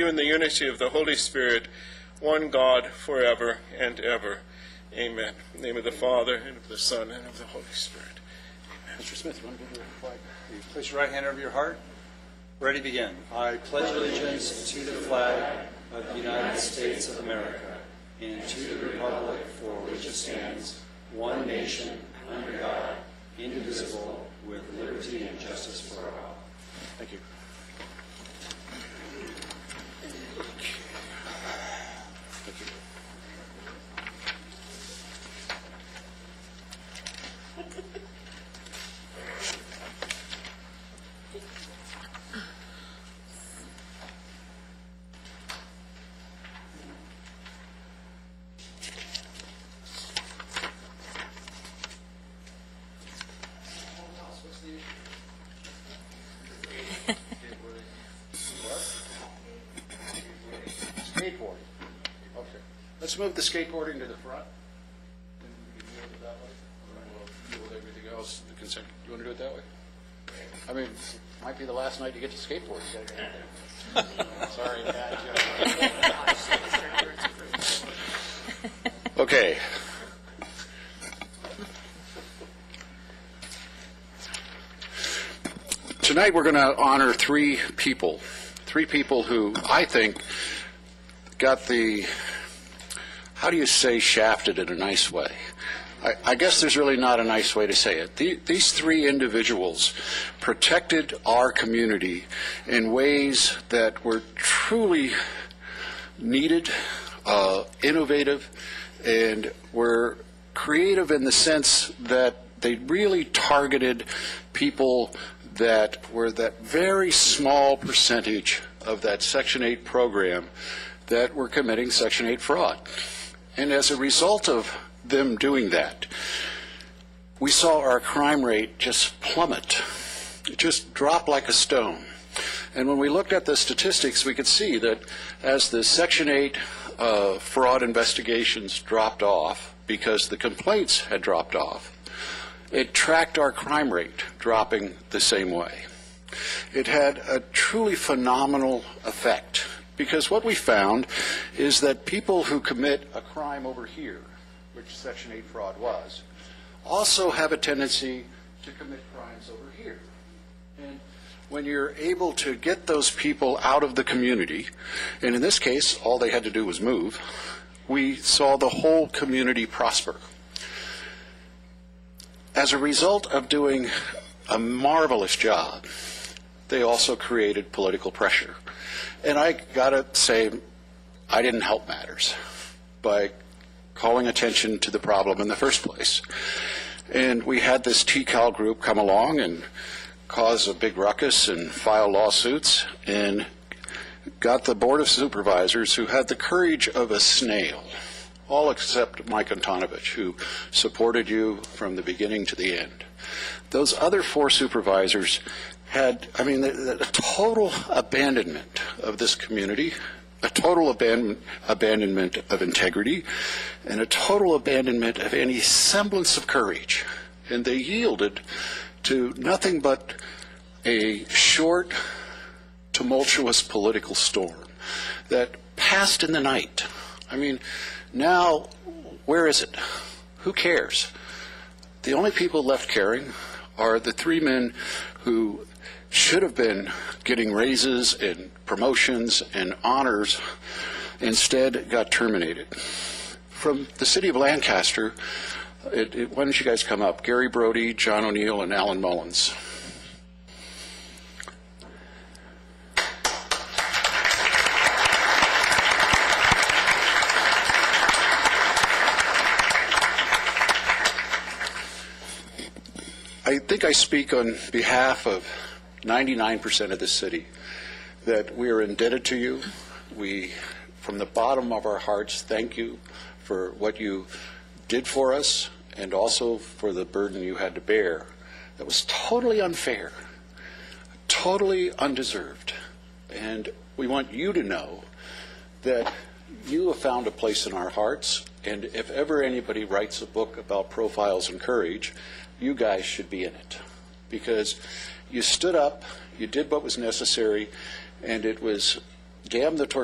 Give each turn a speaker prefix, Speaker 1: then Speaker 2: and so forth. Speaker 1: you in the unity of the Holy Spirit, one God, forever and ever. Amen. In the name of the Father, and of the Son, and of the Holy Spirit.
Speaker 2: Mr. Smith, you want to give your flag? You Place your right hand over your heart. Ready, to begin. I pledge allegiance to the flag of the United States of America and to the republic for which it stands, one nation, under God, indivisible, with liberty and justice for all. Thank you.
Speaker 3: Skateboarding. Okay. Let's move the skateboarding to the front. Then we can deal with it that way. We'll Deal with everything else, the consent. You want to do it that way? I mean, it might be the last night you get to skateboard. You gotta get out there. Sorry, bad joke. Okay. Tonight, we're going to honor three people, three people who I think got the, how do you say shafted in a nice way? I, I guess there's really not a nice way to say it. The, these three individuals protected our community in ways that were truly needed, uh, innovative, and were creative in the sense that they really targeted people that were that very small percentage of that Section 8 program that were committing Section 8 fraud. And as a result of them doing that, we saw our crime rate just plummet. It just dropped like a stone. And when we looked at the statistics, we could see that as the Section 8 uh, fraud investigations dropped off, because the complaints had dropped off, it tracked our crime rate dropping the same way. It had a truly phenomenal effect because what we found is that people who commit a crime over here, which Section 8 fraud was, also have a tendency to commit crimes over here. And when you're able to get those people out of the community, and in this case, all they had to do was move, we saw the whole community prosper. As a result of doing a marvelous job, they also created political pressure. And I gotta say, I didn't help matters by calling attention to the problem in the first place. And we had this TCAL group come along and cause a big ruckus and file lawsuits and got the Board of Supervisors, who had the courage of a snail, all except Mike Antonovich, who supported you from the beginning to the end. Those other four supervisors had, I mean, the, the total abandonment of this community, a total aban- abandonment of integrity, and a total abandonment of any semblance of courage. And they yielded to nothing but a short, tumultuous political storm that passed in the night. I mean, now, where is it? Who cares? The only people left caring are the three men who should have been getting raises and promotions and honors, instead got terminated. From the city of Lancaster, it, it, why don't you guys come up? Gary Brody, John O'Neill, and Alan Mullins. I think I speak on behalf of 99% of the city that we are indebted to you. We, from the bottom of our hearts, thank you for what you did for us and also for the burden you had to bear that was totally unfair, totally undeserved. And we want you to know that you have found a place in our hearts, and if ever anybody writes a book about profiles and courage, you guys should be in it. Because you stood up, you did what was necessary, and it was damn the torpedoes